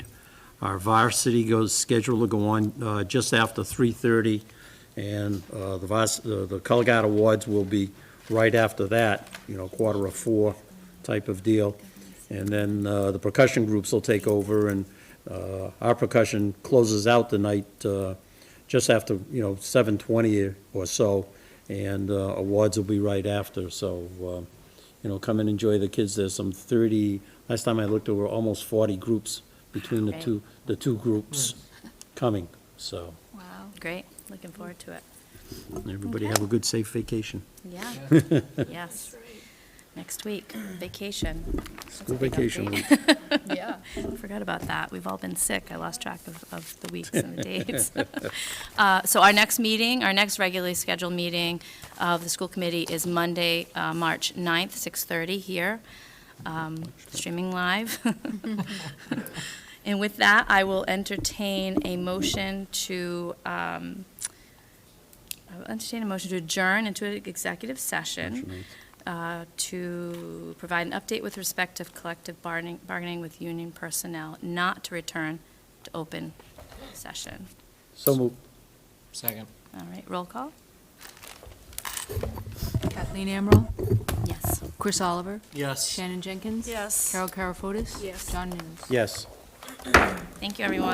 Our varsity goes, scheduled to go on uh, just after 3:30, and uh, the vars, the the color guard awards will be right after that, you know, quarter of four type of deal. And then uh, the percussion groups will take over, and uh, our percussion closes out the night uh, just after, you know, 7:20 or so, and uh, awards will be right after, so, uh, you know, come and enjoy the kids. There's some 30, last time I looked, there were almost 40 groups between the Great. two, the two groups coming, so Wow. Great, looking forward to it. everybody have a good, safe vacation. Yeah, yes. Next week, vacation. That's a School big vacation update. week. Yeah. Forgot about that. We've all been sick. I lost track of, of the weeks and the dates. Uh, So our next meeting, our next regularly scheduled meeting of the school committee is Monday, uh, March 9th, 6:30 here, um, streaming live. And with that, I will entertain a motion to, um, I will entertain a motion to adjourn into an executive session uh, to provide an update with respect to collective bargaining, bargaining with union personnel, not to return to open session. So moved. Second. All right, roll call? Kathleen Emerald, Yes. Chris Oliver, Yes. Shannon Jenkins. Yes. Carol Carafotis. Yes. John News. Yes. Thank you, everyone.